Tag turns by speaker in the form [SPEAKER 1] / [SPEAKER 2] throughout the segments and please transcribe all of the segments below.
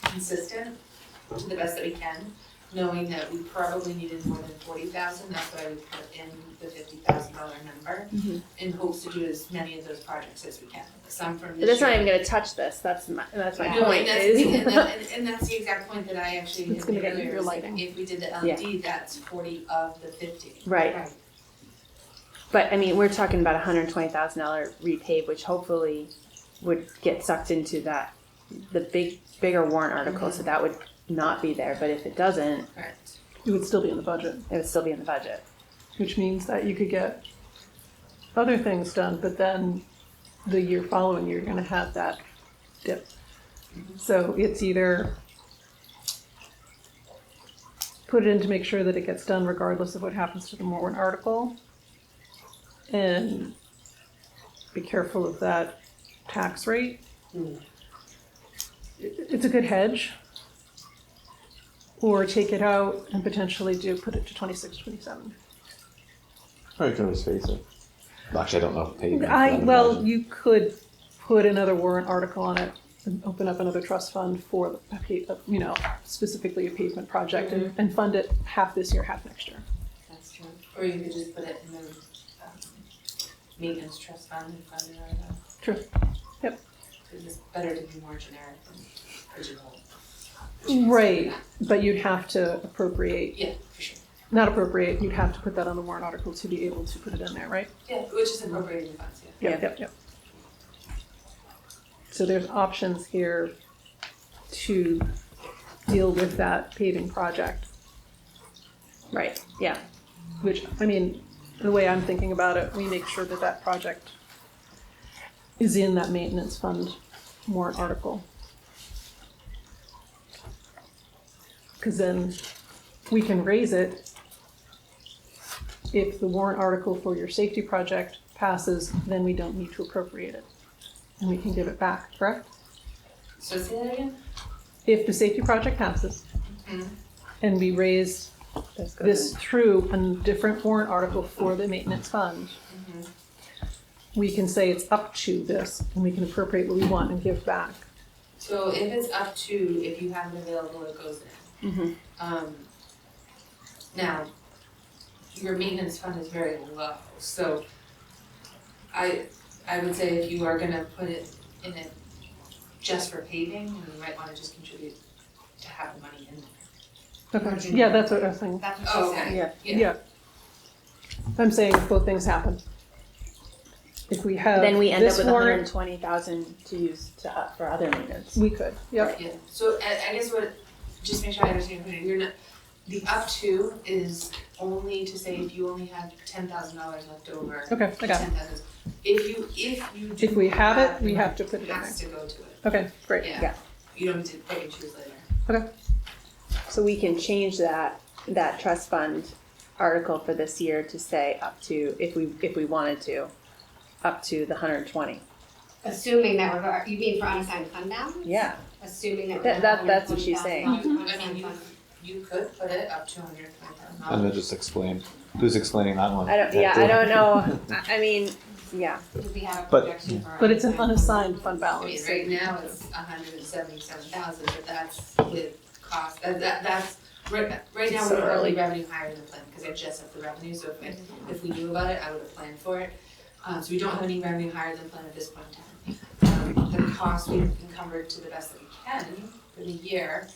[SPEAKER 1] consistent to the best that we can, knowing that we probably needed more than forty thousand, that's why we put in the fifty thousand dollar number
[SPEAKER 2] Mhm.
[SPEAKER 1] in hopes to do as many of those projects as we can, some from
[SPEAKER 2] But
[SPEAKER 1] this
[SPEAKER 2] that's not
[SPEAKER 1] year.
[SPEAKER 2] even gonna touch this. That's my that's my
[SPEAKER 1] No, and
[SPEAKER 2] point.
[SPEAKER 1] that's,
[SPEAKER 2] is-
[SPEAKER 1] and that- and- and that's the exact point that I actually
[SPEAKER 2] It's
[SPEAKER 1] had
[SPEAKER 2] gonna
[SPEAKER 1] made
[SPEAKER 2] get
[SPEAKER 1] earlier,
[SPEAKER 2] your
[SPEAKER 1] is
[SPEAKER 2] lighting.
[SPEAKER 1] if we did the
[SPEAKER 2] Yeah.
[SPEAKER 1] LED, that's forty of the fifty.
[SPEAKER 2] right. But I mean, we're talking about a hundred twenty thousand dollar repave, which hopefully would get sucked into that the big bigger warrant article. So that would not be there. But if it doesn't,
[SPEAKER 1] Correct.
[SPEAKER 3] It would still be in the budget,
[SPEAKER 2] it would still be in the budget.
[SPEAKER 3] which means that you could get other things done, but then the year following, you're gonna have that dip. So it's either put it in to make sure that it gets done regardless of what happens to the warrant article. And be careful of that tax rate. It- It's a good hedge. Or take it out and potentially do, put it to twenty-six, twenty-seven.
[SPEAKER 4] Or you can always face it. Actually, I don't know if paving.
[SPEAKER 3] I, well, you could put another warrant article on it and open up another trust fund for, the pa- you know, specifically a pavement project and, and fund it half this year, half next year.
[SPEAKER 1] That's true, or you could just put it in the, um, maintenance trust fund and fund it out of that.
[SPEAKER 3] True. Yep.
[SPEAKER 1] It's better to be more generic than pigeonhole.
[SPEAKER 3] Right, but you'd have to appropriate,
[SPEAKER 1] Yeah, for sure,
[SPEAKER 3] not appropriate, you'd have to put that on the warrant article to be able to put it in there, right?
[SPEAKER 1] yeah, which is incorporated in funds, yeah.
[SPEAKER 3] Yep, yep, yep. So there's options here to deal with that paving project.
[SPEAKER 2] Right. Yeah.
[SPEAKER 3] which I mean, the way I'm thinking about it, we make sure that that project is in that maintenance fund warrant article. Because then we can raise it if the warrant article for your safety project passes, then we don't need to appropriate it. And we can give it back, correct?
[SPEAKER 1] So say that again?
[SPEAKER 3] If the safety project passes
[SPEAKER 1] Mhm.
[SPEAKER 3] and we raise
[SPEAKER 2] This goes
[SPEAKER 3] this through a different warrant article for the maintenance fund,
[SPEAKER 1] Mm-hmm.
[SPEAKER 3] we can say it's up to this, and we can appropriate what we want and give back.
[SPEAKER 1] So if it's up to, if you have it available, it goes in.
[SPEAKER 2] Mhm.
[SPEAKER 1] Um, now, your maintenance fund is very low, so I, I would say if you are gonna put it in it just for paving, then you might wanna just contribute to have the money in there.
[SPEAKER 3] Okay, yeah, that's what I was saying,
[SPEAKER 5] That's what
[SPEAKER 1] Oh,
[SPEAKER 5] she said.
[SPEAKER 1] okay,
[SPEAKER 2] yeah.
[SPEAKER 1] yeah,
[SPEAKER 3] yeah. I'm saying both things happen. If we have
[SPEAKER 2] in. Then we end up
[SPEAKER 3] this
[SPEAKER 2] with one hundred
[SPEAKER 3] warrant,
[SPEAKER 2] twenty thousand to use to uh, for other maintenance.
[SPEAKER 3] we could, yep,
[SPEAKER 1] yeah. So I, I guess what, just make sure I understand, what you're- you're not, the up to is only to say if you only have ten thousand dollars left over.
[SPEAKER 3] okay, I got it.
[SPEAKER 1] ten thousand. If you, if you do.
[SPEAKER 3] If we have it, we have to put it in
[SPEAKER 1] It
[SPEAKER 3] there.
[SPEAKER 1] has to go to it,
[SPEAKER 3] Okay, great,
[SPEAKER 1] yeah.
[SPEAKER 2] Yeah.
[SPEAKER 1] You don't have to pick and choose later.
[SPEAKER 2] So we can change that, that trust fund article for this year to say up to, if we, if we wanted to, up to the hundred and twenty.
[SPEAKER 5] Assuming that we're, you mean for unassigned fund balance?
[SPEAKER 2] Yeah.
[SPEAKER 5] Assuming that.
[SPEAKER 2] That- that- that's what she's saying.
[SPEAKER 5] Mm-hmm.
[SPEAKER 1] I mean, you, you could put it up to hundred and twenty thousand
[SPEAKER 4] And then just explain. Who's explaining that one?
[SPEAKER 2] I don't, yeah, I don't know, I, I mean, yeah,
[SPEAKER 5] We have a
[SPEAKER 4] But-
[SPEAKER 5] projection for.
[SPEAKER 3] but it's an unassigned fund
[SPEAKER 1] I mean,
[SPEAKER 3] balance.
[SPEAKER 1] right now it's hundred and seventy-seven thousand, but that's with cost, that, that, that's, right, right now
[SPEAKER 2] It's
[SPEAKER 1] we're
[SPEAKER 2] so
[SPEAKER 1] already
[SPEAKER 2] early.
[SPEAKER 1] revenue higher than planned, because I just have the revenue, so if, I- if we knew about it, I would have planned for it. Uh, so we don't have any revenue higher than planned at this point in time. Um, the cost we've encumbered to the best that we can for the year,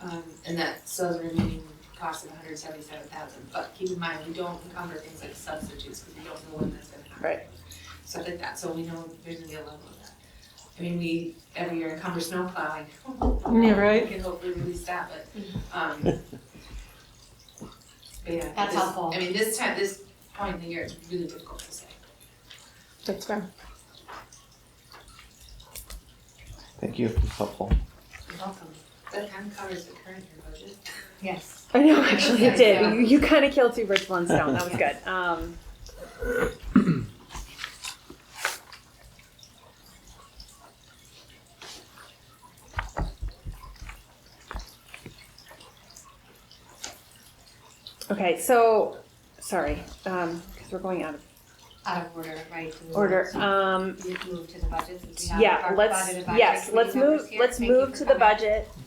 [SPEAKER 1] um, and that still has a remaining cost of hundred and seventy-seven thousand, but keep in mind, we don't encumber things like substitutes, because we don't know when that's gonna happen
[SPEAKER 2] right.
[SPEAKER 1] stuff like that, so we know there's gonna be a level of that. I mean, we, every year encumber snow plowing.
[SPEAKER 3] Yeah, right.
[SPEAKER 1] We can hopefully release that, but, um, but yeah.
[SPEAKER 5] That's
[SPEAKER 1] this-
[SPEAKER 5] helpful.
[SPEAKER 1] I mean, this time, this point in the year, it's really difficult to say.
[SPEAKER 3] That's fair.
[SPEAKER 4] Thank you. It's helpful.
[SPEAKER 1] You're welcome. That kind of covers the current year budget.
[SPEAKER 5] Yes.
[SPEAKER 2] I know, actually, it did. You, you kind of killed two birds with one stone. That was good. Um, okay, so sorry, because we're going out of
[SPEAKER 5] Out of order, right? to move
[SPEAKER 2] order.
[SPEAKER 5] on.
[SPEAKER 2] Um,
[SPEAKER 5] Move to the budget since we have.
[SPEAKER 2] yeah,
[SPEAKER 5] our
[SPEAKER 2] let's
[SPEAKER 5] budget advisory
[SPEAKER 2] yes,
[SPEAKER 5] committee
[SPEAKER 2] let's
[SPEAKER 5] members
[SPEAKER 2] move
[SPEAKER 5] here.
[SPEAKER 2] let's
[SPEAKER 5] Thank you
[SPEAKER 2] move
[SPEAKER 5] for
[SPEAKER 2] to the
[SPEAKER 5] coming.
[SPEAKER 2] budget